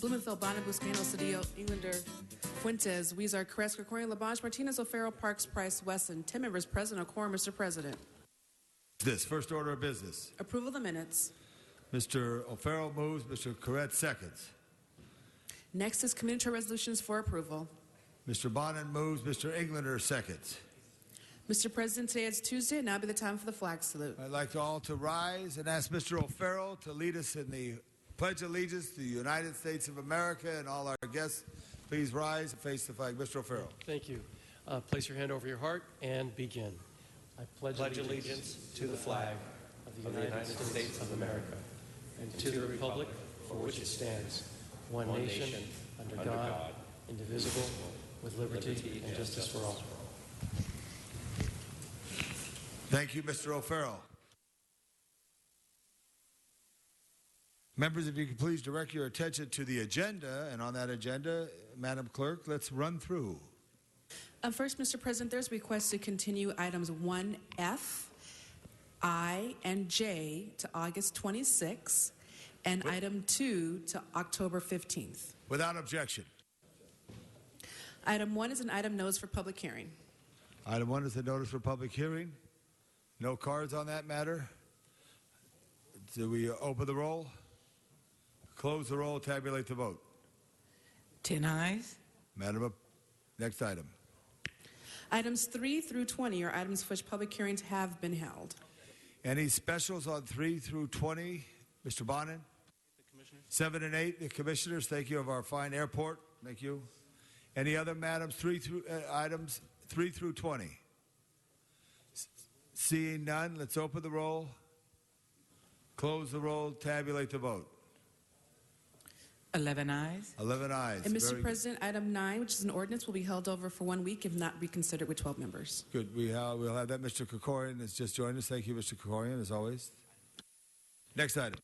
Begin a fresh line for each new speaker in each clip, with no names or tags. Blumenfeld, Bonner, Buscano, Cedillo, Englander, Fuentes, Weezer, Kress, Gregorian, Labange, Martinez, O'Farrell, Parks, Price, Wesson. Ten members present, a quorum, Mr. President.
This first order of business.
Approval of the minutes.
Mr. O'Farrell moves, Mr. Corrett seconds.
Next is community resolutions for approval.
Mr. Bonin moves, Mr. Englander seconds.
Mr. President, today is Tuesday, and now be the time for the flag salute.
I'd like to all to rise and ask Mr. O'Farrell to lead us in the Pledge of Allegiance to the United States of America and all our guests. Please rise and face the flag. Mr. O'Farrell.
Thank you. Uh, place your hand over your heart and begin. I pledge,
pledge allegiance to the flag of the United States of America
and to the republic for which it stands, one
one
nation,
nation,
under
under
God,
God,
indivisible, with liberty
liberty
and justice for all.
Thank you, Mr. O'Farrell. Members, if you could please direct your attention to the agenda, and on that agenda, Madam Clerk, let's run through.
Uh, first, Mr. President, there's requests to continue items 1F, I, and J to August 26, and item 2 to October 15th.
Without objection.
Item 1 is an item notice for public hearing.
Item one is the notice for public hearing. No cards on that matter. Do we open the roll? Close the roll, tabulate the vote.
Ten eyes.
Madam, Ap- next item.
Items 3 through 20 are items for which public hearings have been held.
Any specials on 3 through 20? Mr. Bonin? 7 and 8, the commissioners. Thank you of our fine airport. Thank you. Any other madams? 3 through uh, items 3 through 20. S- Seeing none, let's open the roll. Close the roll, tabulate the vote.
Eleven eyes.
11 ayes.
And, Mr.
Very
President, item 9, which is an ordinance, will be held over for one week if not reconsidered with 12 members.
Good. We have, we'll have that. Mr. Kokorian has just joined us. Thank you, Mr. Kokorian, as always. Next item.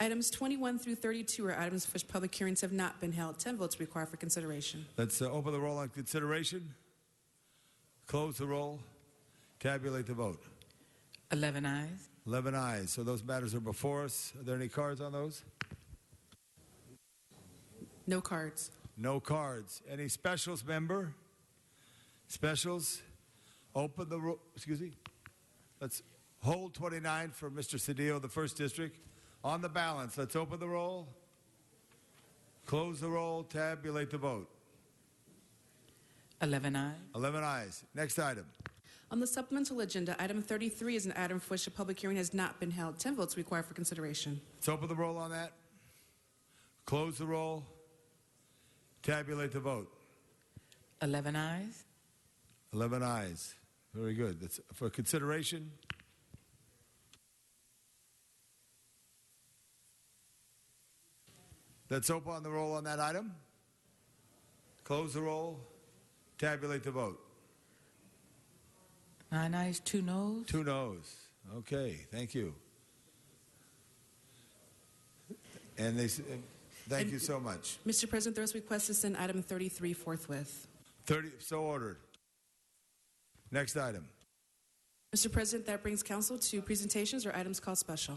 Items 21 through 32 are items for which public hearings have not been held. 10 votes required for consideration.
Let's uh, open the roll on consideration. Close the roll. Tabulate the vote.
Eleven eyes.
11 ayes. So those matters are before us. Are there any cards on those?
No cards.
No cards. Any specials, member? Specials? Open the roll. Excuse me. Let's hold 29 for Mr. Cedillo, the first district. On the balance, let's open the roll. Close the roll. Tabulate the vote.
Eleven eyes.
11 ayes. Next item.
On the supplemental agenda, item 33 is an item for which a public hearing has not been held. 10 votes required for consideration.
Let's open the roll on that. Close the roll. Tabulate the vote.
Eleven eyes.
11 ayes. Very good. That's for consideration. Let's open the roll on that item. Close the roll. Tabulate the vote.
Nine eyes. Two noes.
Two noes. Okay. Thank you. And they. s- and Thank you so much.
Mr. President, there is request to send item 33 forthwith.
30, so ordered. Next item.
Mr. President, that brings council to presentations or items called special.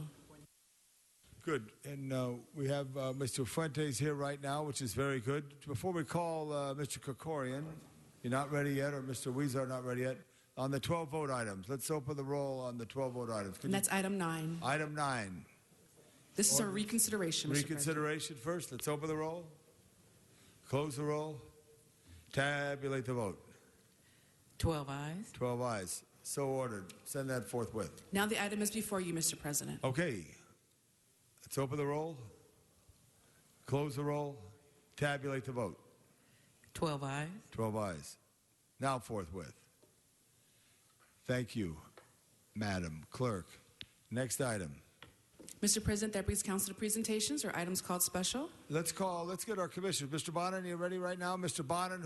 Good. And uh, we have uh, Mr. Fuentes here right now, which is very good. Before we call uh, Mr. Kokorian, you're not ready yet, or Mr. Weezer not ready yet, on the 12 vote items. Let's open the roll on the 12 vote items. Can
And
you-
that's item 9.
item 9.
This is a reconsideration, Mr. President.
Reconsideration first. Let's open the roll. Close the roll. Tabulate the vote.
Twelve eyes.
12 ayes. So ordered. Send that forthwith.
Now the item is before you, Mr. President.
Okay. Let's open the roll. Close the roll. Tabulate the vote.
Twelve eyes.
12 ayes. Now forthwith. Thank you, Madam Clerk. Next item.
Mr. President, that brings council to presentations or items called special.
Let's call, let's get our commissioners. Mr. Bonin, you ready right now? Mr. Bonin,